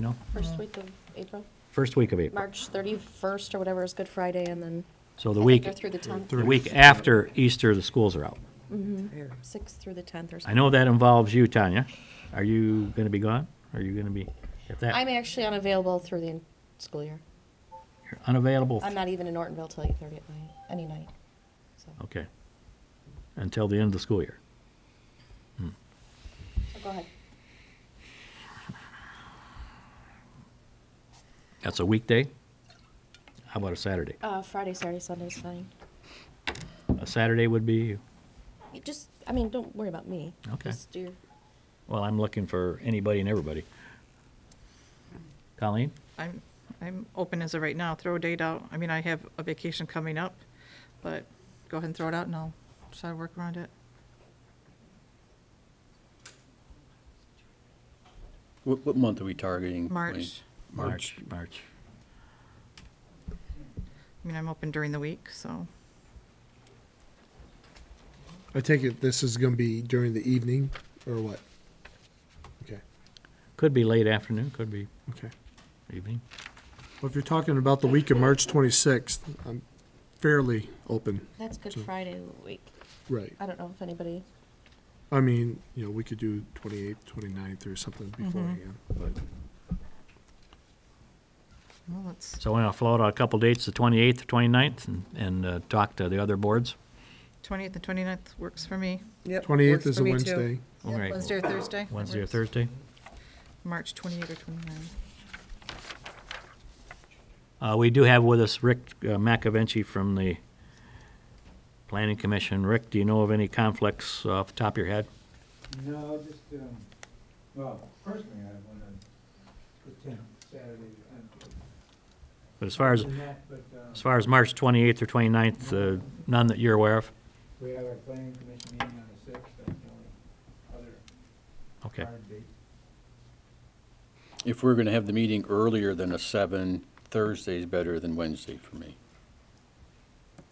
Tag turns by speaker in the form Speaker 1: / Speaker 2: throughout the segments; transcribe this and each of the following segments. Speaker 1: know?
Speaker 2: First week of April,
Speaker 1: First week of April.
Speaker 2: March 31st or whatever is Good Friday, and then
Speaker 1: So
Speaker 2: I
Speaker 1: the
Speaker 2: think
Speaker 1: week,
Speaker 2: they're through the 10th,
Speaker 1: the week after Easter, the schools are out.
Speaker 2: 6th Mm-hmm. through the 10th or
Speaker 1: I
Speaker 2: something.
Speaker 1: know that involves you, Tanya. Are you going to be gone? Are you going to be, if that,
Speaker 2: I'm actually unavailable through the en- school year.
Speaker 1: you're unavailable?
Speaker 2: I'm not even in Nortonville till 8:30 at night, any night. So
Speaker 1: Okay. Until the end of the school year. Hmm.
Speaker 2: so Oh, go ahead.
Speaker 1: That's a weekday? How about a Saturday?
Speaker 2: Uh, Friday, Saturday, Sunday's fine.
Speaker 1: A Saturday would be,
Speaker 2: You just, I mean, don't worry about me.
Speaker 1: Okay.
Speaker 2: Just do your-
Speaker 1: well, I'm looking for anybody and everybody. Colleen?
Speaker 3: I'm, I'm open as of right now, throw a date out. I mean, I have a vacation coming up, but go ahead and throw it out and I'll try to work around it.
Speaker 4: What, what month are we targeting? Wayne?
Speaker 3: March.
Speaker 4: March.
Speaker 1: March.
Speaker 3: I mean, I'm open during the week, so,
Speaker 5: I take it this is going to be during the evening or what? Okay.
Speaker 1: Could be late afternoon, could be
Speaker 5: Okay.
Speaker 1: evening.
Speaker 5: Well, if you're talking about the week of March 26th, I'm fairly open.
Speaker 2: That's Good Friday week.
Speaker 5: Right.
Speaker 2: I don't know if anybody,
Speaker 5: I mean, you know, we could do 28th, 29th or something
Speaker 6: Mm-hmm.
Speaker 5: beforehand. But
Speaker 3: well, let's,
Speaker 1: So we're going to float out a couple dates, the 28th, 29th, and, and uh, talk to the other boards.
Speaker 3: 20th and 29th works for me.
Speaker 6: Yep,
Speaker 5: 28th
Speaker 6: works
Speaker 5: is
Speaker 6: for
Speaker 5: a
Speaker 6: me too.
Speaker 5: Wednesday.
Speaker 1: All right.
Speaker 3: Wednesday or Thursday? that
Speaker 1: Wednesday or
Speaker 3: works.
Speaker 1: Thursday.
Speaker 3: March 28th or 29th.
Speaker 1: Uh, we do have with us Rick uh, McAvinci from the Planning Commission. Rick, do you know of any conflicts off the top of your head?
Speaker 7: No, just, um, well, personally, I wanna attend Saturday, the tenth.
Speaker 1: But as far as,
Speaker 7: And that, But, um,
Speaker 1: as far as March 28th or 29th, uh, none that you're aware of?
Speaker 7: we have our planning commission meeting on the sixth, that's the only other
Speaker 1: Okay.
Speaker 7: hard date.
Speaker 4: If we're gonna have the meeting earlier than a seven, Thursday's better than Wednesday for me.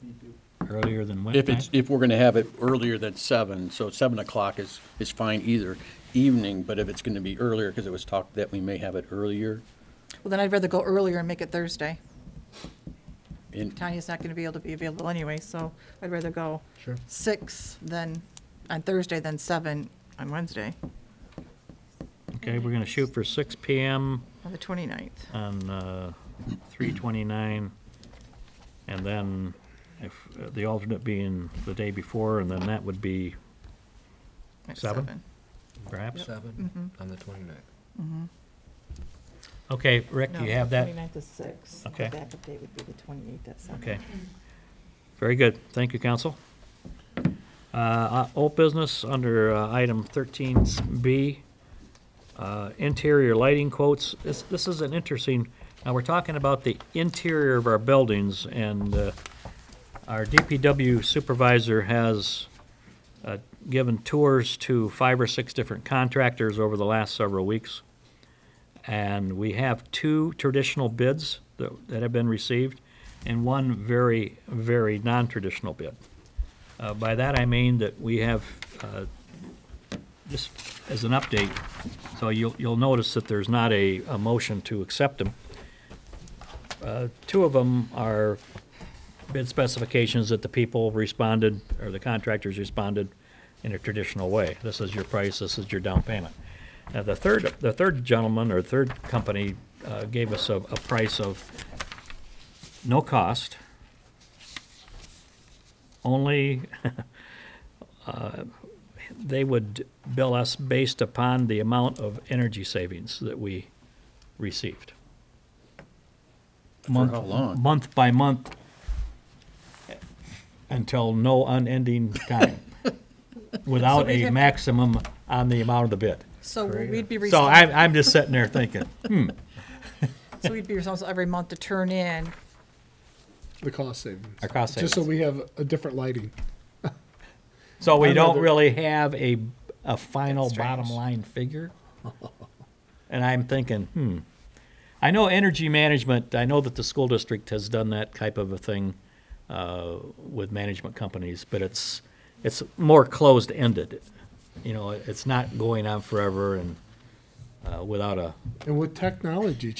Speaker 7: Me too.
Speaker 1: Earlier than when?
Speaker 4: If it's, if we're gonna have it earlier than seven, so seven o'clock is, is fine either evening, but if it's gonna be earlier, because it was talked that we may have it earlier.
Speaker 3: Well, then I'd rather go earlier and make it Thursday.
Speaker 4: And
Speaker 3: Tanya's not going to be able to be available anyway, so I'd rather go
Speaker 5: Sure.
Speaker 3: six than, on Thursday than seven on Wednesday,
Speaker 1: Okay, we're going to shoot for 6 PM
Speaker 3: on the 29th.
Speaker 1: on uh, 329, and then if, uh, the alternate being the day before, and then that would be
Speaker 3: at
Speaker 1: Seven? perhaps?
Speaker 3: Mm-hmm.
Speaker 8: Seven on the twenty-ninth.
Speaker 1: Okay, Rick,
Speaker 3: No,
Speaker 1: do you have that?
Speaker 3: 29th is six. The
Speaker 1: Okay.
Speaker 3: Backup date would be the 28th at seven.
Speaker 1: Okay. Very good. Thank you, council. Uh, uh, Old business under uh, item 13B, uh, interior lighting quotes. This this is an interesting, now, we're talking about the interior of our buildings, and uh, our DPW supervisor has uh, given tours to five or six different contractors over the last several weeks, and we have two traditional bids that that have been received and one very, very non-traditional bid. Uh, By that, I mean that we have, uh, just as an update, so you'll, you'll notice that there's not a, a motion to accept them. Uh, Two of them are bid specifications that the people responded, or the contractors responded in a traditional way. This is your price, this is your down payment. Now, Uh, the third, the third gentleman, or third company, uh, gave us a, a price of no cost, only uh, they would bill us based upon the amount of energy savings that we received.
Speaker 4: for how long?
Speaker 1: Month by month, until no unending time, without a maximum on the amount of the bid.
Speaker 3: So we'd be
Speaker 1: So I'm,
Speaker 3: responsible,
Speaker 1: I'm just sitting there thinking, hmm,
Speaker 3: so we'd be responsible every month to turn in,
Speaker 5: The cost savings.
Speaker 1: Our cost
Speaker 5: Just so
Speaker 1: savings.
Speaker 5: we have a different lighting.
Speaker 1: so we
Speaker 5: I'd
Speaker 1: don't
Speaker 5: rather-
Speaker 1: really have a, a final
Speaker 3: That's strange.
Speaker 1: bottom line figure. And I'm thinking, hmm, I know energy management, I know that the school district has done that type of a thing uh, with management companies, but it's, it's more closed-ended. You know, it's not going on forever and uh, without a
Speaker 5: And with technology